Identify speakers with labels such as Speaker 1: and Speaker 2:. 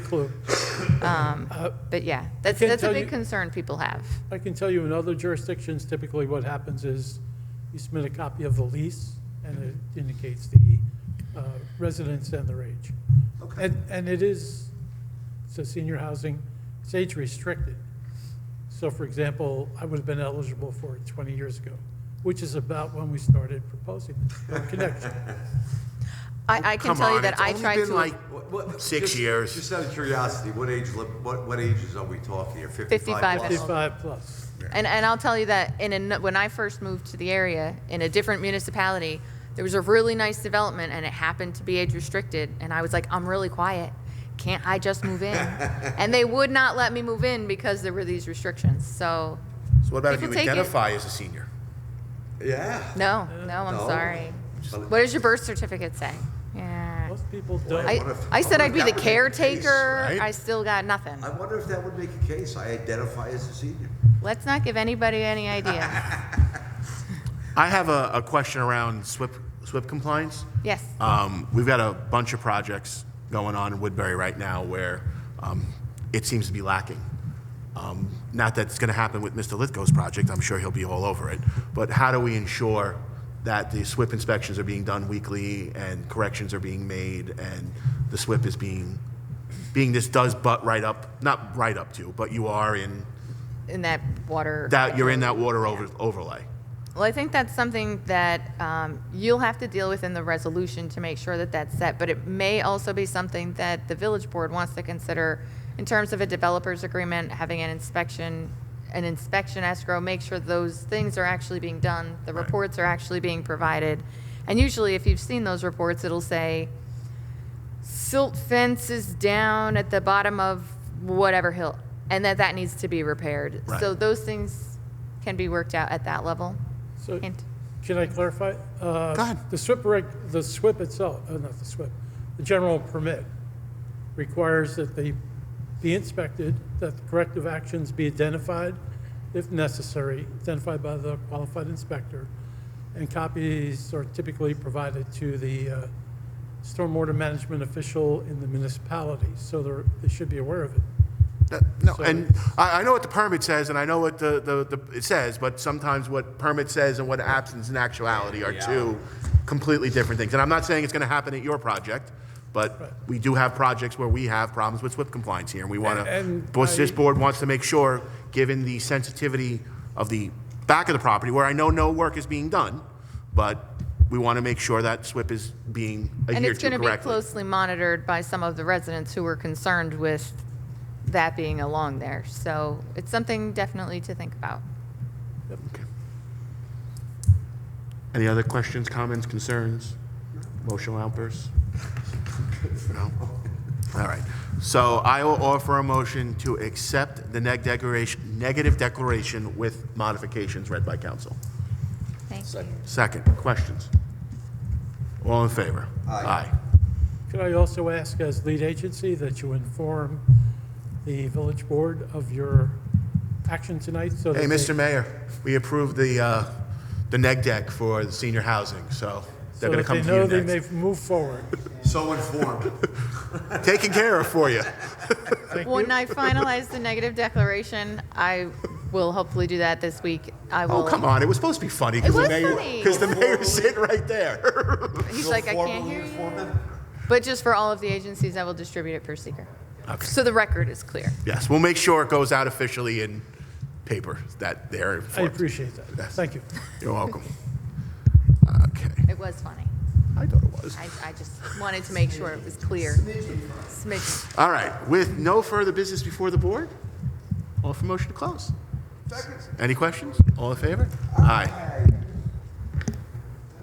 Speaker 1: clue.
Speaker 2: Um, But yeah, that's,
Speaker 1: Can't
Speaker 2: that's a
Speaker 1: tell
Speaker 2: big
Speaker 1: you-
Speaker 2: concern people have.
Speaker 1: I can tell you in other jurisdictions, typically what happens is you submit a copy of the lease, and it indicates the uh, residence and their age.
Speaker 3: Okay.
Speaker 1: And, and it is, so senior housing, it's age restricted. So for example, I would have been eligible for it 20 years ago, which is about when we started proposing the connection.
Speaker 2: I, I can
Speaker 4: Come
Speaker 2: tell you
Speaker 4: on,
Speaker 2: that
Speaker 4: it's
Speaker 2: I
Speaker 4: only
Speaker 2: tried
Speaker 4: been
Speaker 2: to.
Speaker 4: like-
Speaker 3: What- what-
Speaker 4: Six
Speaker 3: just-
Speaker 4: years.
Speaker 3: Just out of curiosity, what age, li- what, what ages are we talking here?
Speaker 2: 55
Speaker 3: 55 plus?
Speaker 2: and older.
Speaker 1: 55 plus.
Speaker 2: And, and I'll tell you that in a, when I first moved to the area, in a different municipality, there was a really nice development and it happened to be age restricted. And I was like, I'm really quiet. Can't I just move in? and they would not let me move in because there were these restrictions. So,
Speaker 4: So what about if you
Speaker 2: People take it.
Speaker 4: identify as a senior?
Speaker 3: Yeah.
Speaker 2: no, no, I'm
Speaker 3: No.
Speaker 2: sorry.
Speaker 3: Just-
Speaker 2: What does your birth certificate say? Yeah.
Speaker 1: Most people don't.
Speaker 2: I,
Speaker 3: what if-
Speaker 2: I said
Speaker 3: what
Speaker 2: I'd
Speaker 3: if
Speaker 2: be
Speaker 3: that
Speaker 2: the
Speaker 3: was the case,
Speaker 2: caretaker.
Speaker 4: right?
Speaker 2: I still got nothing.
Speaker 3: I wonder if that would make a case, I identify as a senior.
Speaker 2: Let's not give anybody any idea.
Speaker 4: I have a, a question around SWIP, SWIP compliance.
Speaker 2: Yes.
Speaker 4: Um, we've got a bunch of projects going on in Woodbury right now where um, it seems to be lacking. Um, not that it's going to happen with Mr. Lithgow's project, I'm sure he'll be all over it, but how do we ensure that the SWIP inspections are being done weekly and corrections are being made and the SWIP is being, being this does butt right up, not right up to, but you are in,
Speaker 2: In that water.
Speaker 4: that, you're in that water over overlay?
Speaker 2: Well, I think that's something that um, you'll have to deal with in the resolution to make sure that that's set, but it may also be something that the village board wants to consider in terms of a developer's agreement, having an inspection, an inspection escrow, make sure those things are actually being done, the reports are actually being provided. And usually, if you've seen those reports, it'll say, silt fence is down at the bottom of whatever hill, and that that needs to be repaired.
Speaker 4: Right.
Speaker 2: So those things can be worked out at that level.
Speaker 1: So,
Speaker 2: Hint.
Speaker 1: can I clarify? Uh,
Speaker 4: Go ahead.
Speaker 1: The SWIP, reg- the SWIP itself, uh, not the SWIP, the general permit requires that they be inspected, that the corrective actions be identified, if necessary, identified by the qualified inspector, and copies are typically provided to the uh, stormwater management official in the municipality, so they're, they should be aware of it.
Speaker 4: That- No,
Speaker 1: So-
Speaker 4: and I, I know what the permit says, and I know what the, the, the, it says, but sometimes what permit says and what absence and actuality are two completely different things. And I'm not saying it's gonna happen at your project, but we do have projects where we have problems with SWIP compliance here, and we wanna,
Speaker 1: And
Speaker 4: but this
Speaker 1: I-
Speaker 4: board wants to make sure, given the sensitivity of the back of the property, where I know no work is being done, but we wanna make sure that SWIP is being
Speaker 2: And
Speaker 4: adhered
Speaker 2: it's
Speaker 4: to
Speaker 2: going to be
Speaker 4: correctly.
Speaker 2: closely monitored by some of the residents who were concerned with that being along there. So it's something definitely to think about.
Speaker 4: Any other questions, comments, concerns, emotional outbursts? No? All right. So I will offer a motion to accept the neg declaration, negative declaration with modifications read by council.
Speaker 2: Thank you.
Speaker 4: Second, questions? All in favor?
Speaker 3: Aye.
Speaker 1: Could I also ask, as lead agency, that you inform the village board of your action tonight? so that
Speaker 4: Hey,
Speaker 1: they-
Speaker 4: Mr. Mayor, we approved the, uh, the neg deck for the senior housing, so they're going to come
Speaker 1: So that
Speaker 4: to
Speaker 1: they
Speaker 4: you
Speaker 1: know they
Speaker 4: next.
Speaker 1: may move forward.
Speaker 3: So informed.
Speaker 4: Taken care of for you.
Speaker 1: Thank you.
Speaker 2: When I finalize the negative declaration, I will hopefully do that this week. I
Speaker 4: Oh,
Speaker 2: will.
Speaker 4: come on, it was supposed to be funny.
Speaker 2: It was funny.
Speaker 4: Because the mayor's sitting right there.
Speaker 2: He's like, I can't
Speaker 3: Formally
Speaker 2: hear you.
Speaker 3: informed.
Speaker 2: But just for all of the agencies, I will distribute it per seeker.
Speaker 4: Okay.
Speaker 2: So the record is clear.
Speaker 4: Yes, we'll make sure it goes out officially in paper that they're
Speaker 1: I
Speaker 4: informed.
Speaker 1: appreciate that. Thank you.
Speaker 4: You're welcome. Okay,
Speaker 2: It was funny.
Speaker 4: I thought it was.
Speaker 2: I, I just wanted to make sure it was clear. Smidgen.
Speaker 4: All right, with no further business before the board, all for motion to close. Any questions? All in favor? Aye.